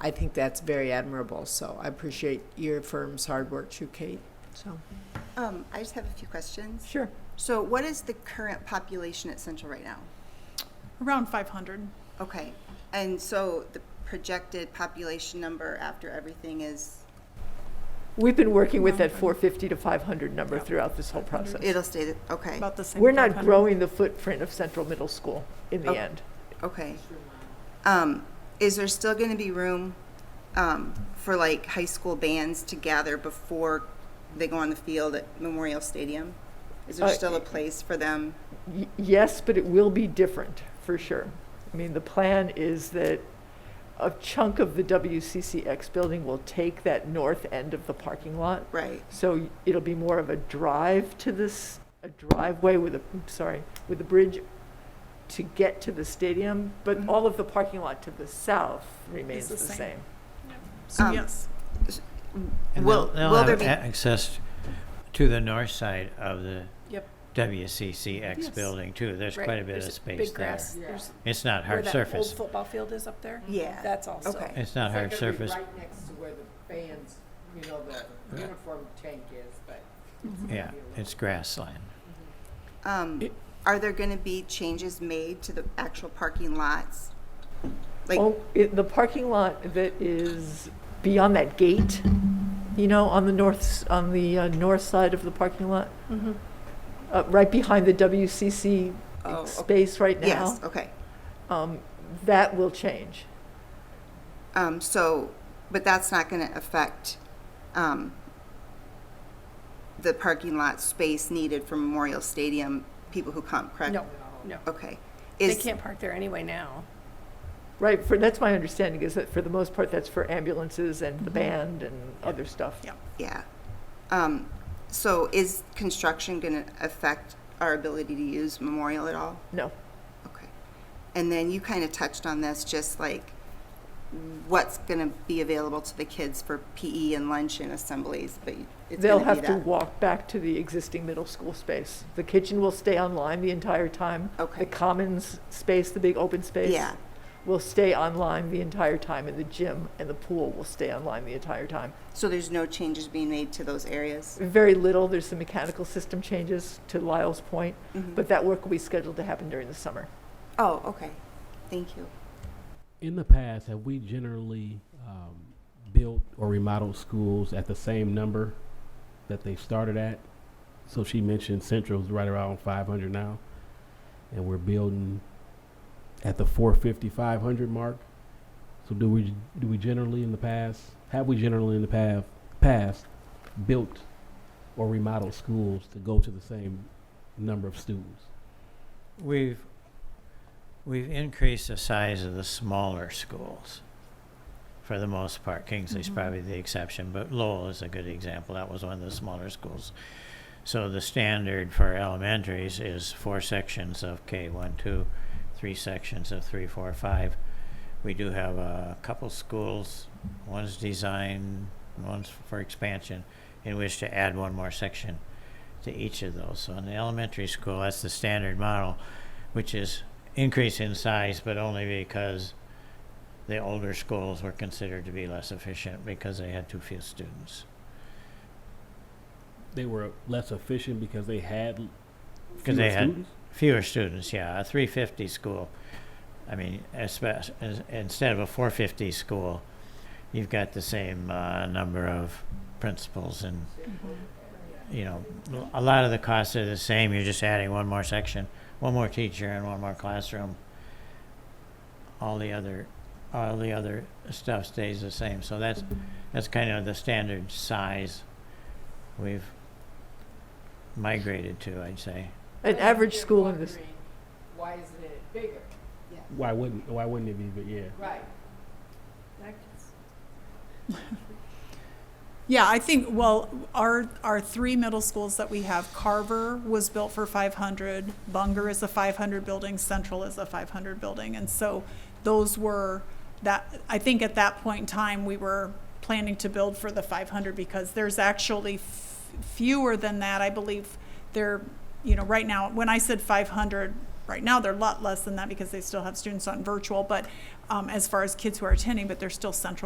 I think that's very admirable. So I appreciate your firm's hard work too, Kate. So Um, I just have a few questions. sure. So what is the current population at Central right now? Around 500. Okay, and so the projected population number after everything is, We've been working with that 450 to 500 number throughout this whole process. it'll stay, the- okay, About the same. We're not 500. growing the footprint of Central Middle School in Oh. the end. okay. Um, is there still gonna be room, um, for like high school bands to gather before they go on the field at Memorial Stadium? Is there Uh, still a place for them? Y- Yes, but it will be different, for sure. I mean, the plan is that a chunk of the WCCX building will take that north end of the parking lot. Right, So it'll be more of a drive to this, a driveway with a, oops, sorry, with a bridge to get to the stadium, but all of the parking lot to the south remains Mm-hmm. the the same. same. So, Um, yes. And Will- they'll, they'll will have there be- a- access to the north side of the Yep. WCCX Yes. building too. There's Right. quite a bit There's of space big there. grass. There's It's not where hard that old surface. football field is up there. yeah. That's also. Okay. It's not hard surface. Right next to where the fans, you know, the Yeah. uniform tank is, but. Yeah, it's grassland. Um, It- are there gonna be changes made to the actual parking lots? Like, Oh, it, the parking lot that is beyond that gate, you know, on the north, s- on the uh, north side of the parking lot? Mm-hmm. Uh, right behind the WCC Oh, okay. space right now? yes, okay. Um, that will change. Um, so, but that's not gonna affect, um, the parking lot space needed for Memorial Stadium, people who come, correct? No, no. Okay. They Is, can't park there anyway now. Right, for, that's my understanding, is that for the most part, that's for ambulances and the band and other stuff. Yeah. Mm-hmm. yeah. Um, so is construction gonna affect our ability to use Memorial at all? No, Okay. And then you kind of touched on this, just like what's gonna be available to the kids for PE and lunch and assemblies, but it's they'll gonna be have to that. walk back to the existing middle school space. The kitchen will stay online the entire time. Okay. The commons space, the big open space. Yeah. Will stay online the entire time, and the gym and the pool will stay online the entire time. So there's no changes being made to those areas? Very little, there's some mechanical system changes to Lyle's point, but that work will be scheduled to happen during the summer. Oh, okay. Thank you. In the past, have we generally um, built or remodeled schools at the same number that they started at? So she mentioned Central's right around 500 now, and we're building at the 450, 500 mark. So do we do we generally in the past have we generally in the past past built or remodeled schools to go to the same number of students? We've, we've increased the size of the smaller schools for the most part. Kingsley's probably the exception, but Lowell is a good example. That was one of the smaller schools. So the standard for elementaries is four sections of K one, two, three sections of three, four, five. We do have a couple schools, one's design, one's for expansion, in which to add one more section to each of those. So in the elementary school, that's the standard model, which is increase in size, but only because the older schools were considered to be less efficient because they had too few students. They were less efficient because they had Because fewer they had- students? Fewer students, yeah. A 350 school, I mean, espe- as, instead of a 450 school, you've got the same uh, number of principals and, you know, a lot of the costs are the same. You're just adding one more section, one more teacher, and one more classroom. All the other, all the other stuff stays the same. So that's, that's kind of the standard size we've migrated to, I'd say. An average school in this, Why isn't it bigger? Why wouldn't why wouldn't it be? But yeah. Right. Yeah, I think, well, our, our three middle schools that we have, Carver was built for 500, Bunger is a 500 building, Central is a 500 building. And so those were, that, I think at that point in time, we were planning to build for the 500 because there's actually f- fewer than that, I believe. They're, you know, right now, when I said 500, right now, they're a lot less than that because they still have students on virtual, but um, as far as kids who are attending, but they're still Central